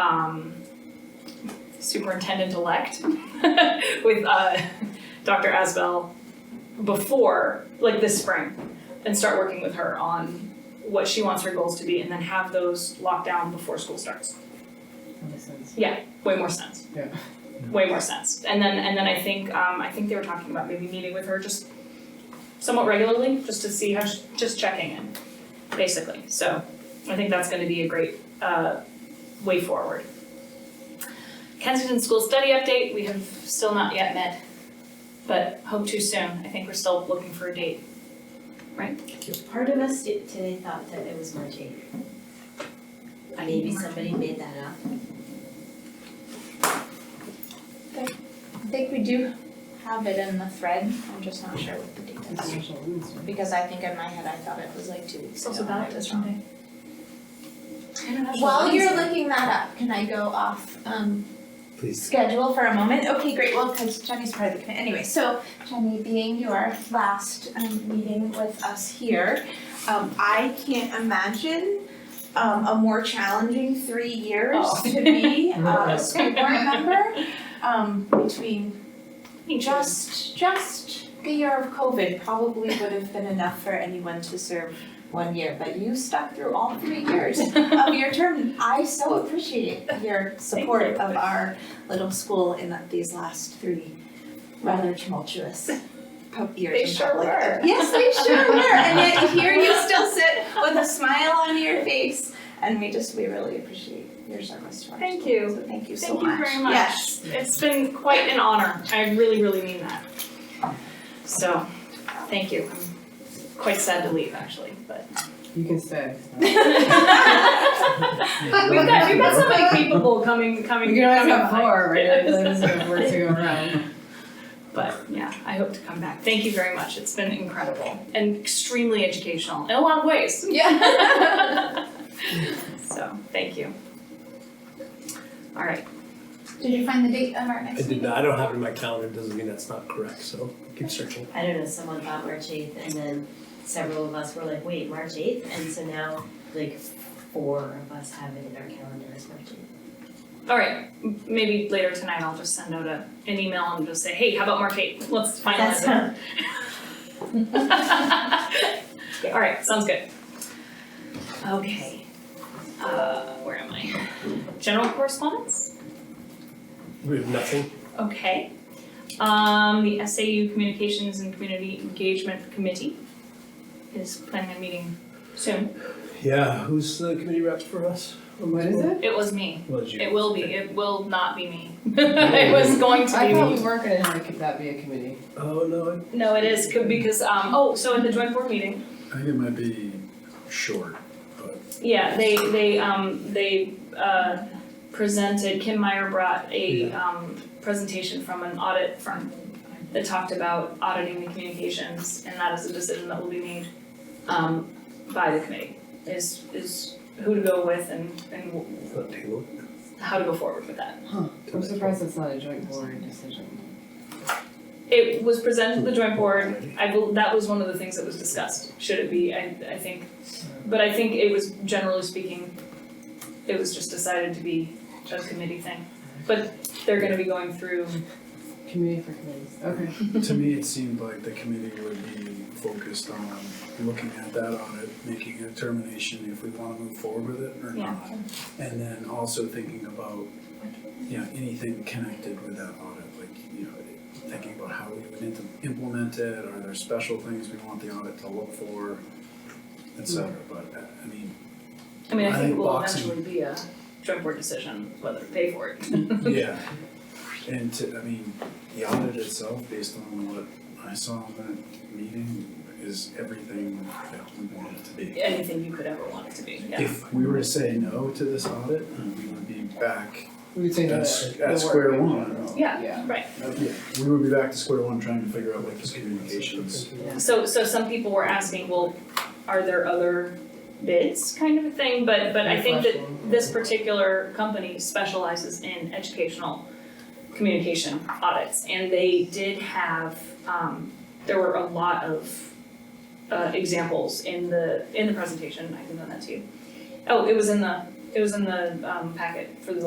um, superintendent-elect with uh, Dr. Asbel before, like this spring, and start working with her on what she wants her goals to be, and then have those locked down before school starts. That makes sense. Way more sense. Yeah. Way more sense. And then, and then I think, um, I think they were talking about maybe meeting with her just somewhat regularly, just to see how, she, just checking in, basically. So I think that's gonna be a great, uh, way forward. Kensington School Study Update, we have still not yet met, but hope to soon. I think we're still looking for a date. Part of us did- today thought that it was March eighth. Maybe somebody made that up. I think we do have it in the thread, I'm just not sure what the date is. Social rules, right? Because I think in my head, I thought it was like two weeks It's also ago. and I ballot was testing wrong. day. International While Women's you're Day. looking that up, can I go off um Please. schedule for a moment? Okay, great, well, because Jenny's part of the committee, anyway, so Jenny, being your last um meeting with us here, um I can't imagine um a more challenging three years Oh. to be uh, a school board member. Um between Thank you. just, just the year of COVID probably would have been enough for anyone to serve one year, but you stuck through all three years of your term. I so appreciate your support Thank you. of our little school in these last three rather tumultuous pub- years They in sure public. were. Yes, they sure were, and yet here you still sit with a smile on your face, and we just, we really appreciate your service to our Thank school. you. So thank you so Thank much. you very much. Yes. It's been quite an honor. I really, really mean that. So, thank you. I'm quite sad to leave actually, but You can say. we've got we've got so many capable coming coming We can always coming have by. four, right? Yes. There's no work to go around. But yeah, I hope to come back. Thank you very much. It's been incredible and extremely educational in a lot of ways. Yeah. so thank you. All right. Did you find the date of our I next did meeting? not, I don't have it in my calendar, doesn't mean that's not correct, so keep searching. I don't know, someone thought March eighth and then several of us were like, wait, March eighth? And so now like four of us have it in our calendars, March eighth. All right, m- maybe later tonight I'll just send out a, an email and just say, hey, how about March 8th? Let's That's finalize not, it. All right, sounds good. Okay, uh, where am I? General correspondence? We have nothing. Okay. Um, the SAU Communications and Community Engagement Committee is planning a meeting soon. Yeah, who's the committee rep for us? What is it? It was me. Was you? It will be. It will not be me. It was going to be I me. thought we weren't gonna have that be a committee. Oh, no, No, it is, c- because, um, oh, so at the joint board meeting, I think it might be short. Yeah, they they um they uh presented, Kim Meyer brought a um presentation from an audit firm that talked about auditing the communications and that is a decision that will be made um by the committee is is who to go with and and w- I, not table. how to go forward with that. I'm surprised it's not a joint board decision. It was presented to the joint board, I bel that was one of the things that was discussed, should it be, I I think. But I think it was generally speaking, it was just decided to be a committee thing. But they're gonna be going through, Committee for committees, okay. To me, it seemed like the committee would be focused on looking at that audit, making a determination if we want to move forward with it or Yeah. not. And then also thinking about, you know, anything connected with that audit, like, you know, thinking about how we would int- implement it, are there special things we want the audit to look for, et cetera. But, uh, I mean, I mean, I I think it think will boxing- eventually be a joint board decision whether to pay for it. Yeah, and to, I mean, the audit itself, based on what I saw in that meeting, is everything that we want it to be. Anything you could ever want it to be, yeah. If we were to say no to this audit, we would be back We would say at, no s- to the at work. square one. Yeah, Yeah. Yeah, we would be back to square one trying to figure out like the communications. So so some people were asking, well, are there other bids kind of a thing, but but I think that this particular company specializes in educational communication audits, and they did have, um, there were a lot of uh, examples in the, in the presentation, I can send that to you. Oh, it was in the, it was in the, um, packet for the